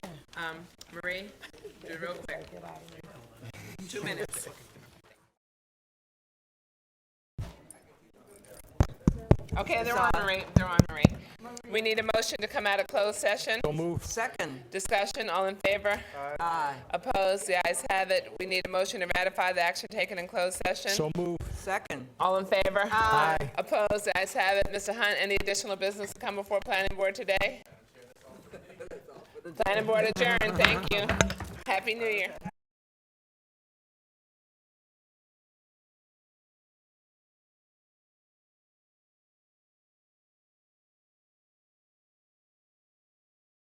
Um, Marie, do it real quick. Two minutes. Okay, they're on, Marie, they're on, Marie. We need a motion to come out of closed session. So move. Second. Discussion, all in favor? Aye. Opposed? The ayes have it. We need a motion to ratify the action taken in closed session. So move. Second. All in favor? Aye. Opposed? The ayes have it. Mr. Hunt, any additional business to come before planning board today? Planning board adjourned. Thank you. Happy New Year.